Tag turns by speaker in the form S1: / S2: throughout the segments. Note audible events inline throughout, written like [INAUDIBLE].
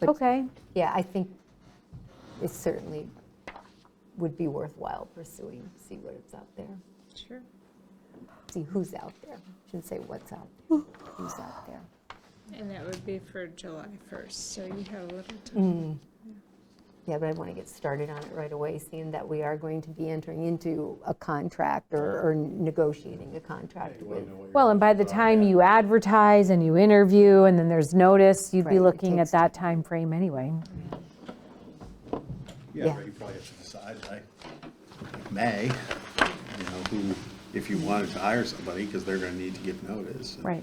S1: But-
S2: Okay.
S1: Yeah, I think it certainly would be worthwhile pursuing, see what is out there,
S3: Sure.
S1: see who's out there. Shouldn't say what's out, there, who's out there.
S3: And that would be for July 1st, so you have a little time.
S1: Yeah, but I want to get started on it right away, seeing that we are going to be entering into a contract or or negotiating a contract with.
S2: Well, and by the time you advertise and you interview and then there's notice, you'd
S1: Right,
S2: be
S1: it
S2: looking
S1: takes
S2: at that time frame anyway.
S1: yeah.
S4: Yeah, but you probably have to decide, like, May, you know, who, if you wanted to hire somebody, because they're gonna need to give notice.
S2: Right.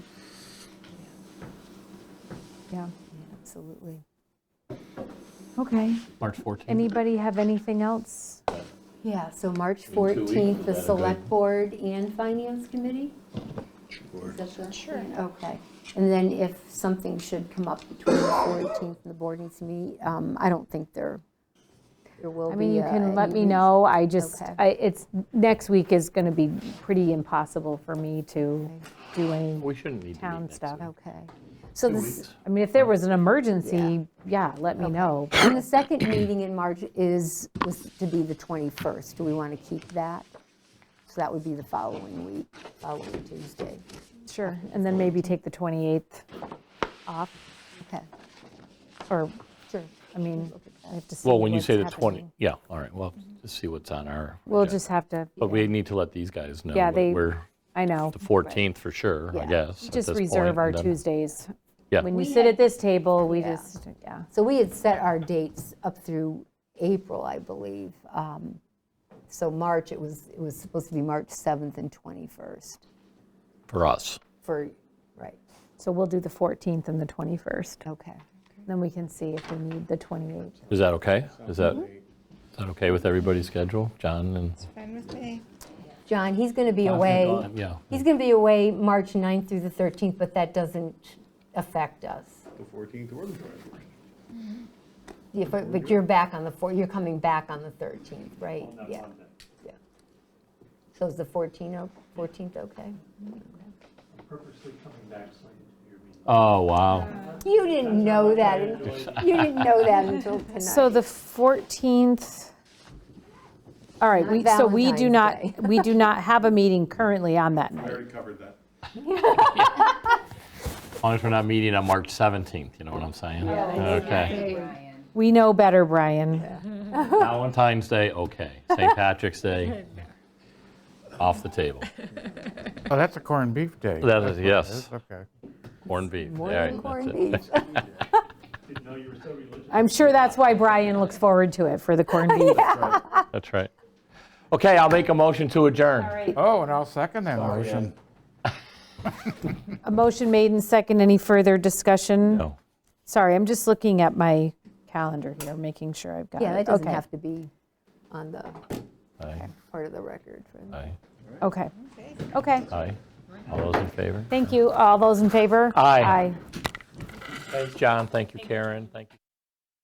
S2: Yeah,
S1: Absolutely.
S2: okay.
S5: March 14th.
S2: Anybody have anything else?
S1: Yeah, so March
S6: two weeks,
S1: 14th, the
S6: is that a good-
S1: Select Board and Finance Committee?
S4: Sure.
S1: Is that the- yeah, Okay. And then if something should come up between the 14th and the board needs to meet, um, I don't think there, there will be.
S2: I mean, you
S1: uh,
S2: can let
S1: any
S2: me
S1: reason-
S2: know, I just,
S1: Okay.
S2: I- it's, next week is going to be pretty impossible for me to do any,
S5: We shouldn't need to meet
S2: Town
S5: next
S2: stuff.
S5: week.
S1: Okay. So
S4: Two
S1: this,
S4: weeks.
S2: I mean, if there was an emergency, yeah, let me know.
S1: and the second meeting in March is, was to be the 21st. Do we want to keep that? So that would be the following week, following Tuesday.
S2: Sure, and then maybe take the 28th off,
S1: Okay,
S2: or,
S1: sure.
S2: I mean, I have to see
S5: Well, when you
S2: what's
S5: say the 20,
S2: happening.
S5: yeah, all right, well, just see what's on our.
S2: We'll
S5: agenda.
S2: just have to,
S5: But we need to let these guys know
S2: Yeah,
S5: that
S2: they-
S5: we're
S2: I know,
S5: the 14th for sure, I
S1: Yeah.
S5: guess. at
S2: just
S5: this
S2: reserve
S5: point,
S2: our
S5: and then-
S2: Tuesdays.
S5: Yeah.
S2: When you
S1: We
S2: sit
S1: had-
S2: at this table, we
S1: Yeah.
S2: just, yeah.
S1: So we had set our dates up through April, I believe. Um, So March, it was, it was supposed to be March 7th and 21st
S5: For us.
S1: for, right,
S2: So we'll do the 14th and the 21st,
S1: okay.
S2: then we can see if we need the 28th.
S5: Is that okay? Is that,
S2: Mm-hmm.
S5: is that okay with everybody's schedule? John and,
S3: Fine with me.
S1: John, he's going to be
S5: John's
S1: away.
S5: gone, yeah.
S1: He's going to be away March 9th through the 13th, but that doesn't affect us.
S4: The fourteenth or the twenty-first.
S1: Yeah, But but you're back on the, four- you're coming back on the 13th, right? Yeah. Yeah. So is the 14th, o- 14th okay?
S7: purposely coming back slightly to your meeting.
S5: oh, wow.
S1: You didn't know that, you didn't know that until tonight.
S2: [LAUGHS] So the 14th, all right,
S1: Not
S2: we, so we do
S1: Valentine's
S2: not, [LAUGHS] we do not have a meeting currently on that
S4: I
S2: night.
S4: already covered that.
S5: As long as we're not meeting on March 17th, you know what I'm saying? Okay.
S2: We know better, Brian.
S5: [LAUGHS] Valentine's Day, okay. St.
S2: [LAUGHS]
S5: Patrick's Day, off the table.
S6: Oh, that's a corned beef day.
S5: That is-
S6: That's what it
S5: yes.
S6: Okay.
S5: Corned beef.
S1: More
S5: all right,
S1: than
S5: that's
S1: corned
S5: it.
S1: beef.
S5: [LAUGHS]
S7: Didn't know you were so religious.
S2: I'm sure that's why Brian looks forward to it for
S1: [LAUGHS]
S2: the corned beef.
S5: That's right. Okay, I'll make a motion to adjourn.
S6: Oh, and I'll second that motion.
S2: A motion made and second. Any further discussion?
S5: No.
S2: Sorry, I'm just looking at my calendar here, making sure I've got it.
S1: Yeah, that doesn't
S2: Okay,
S1: have to be on the
S5: Aye,
S1: part of the record. for-
S5: aye,
S2: Okay, okay.
S5: aye. All those in favor?
S2: Thank you. All those in favor?
S5: Aye.
S2: Aye.
S5: Thanks, John. Thank you, Karen. Thank you.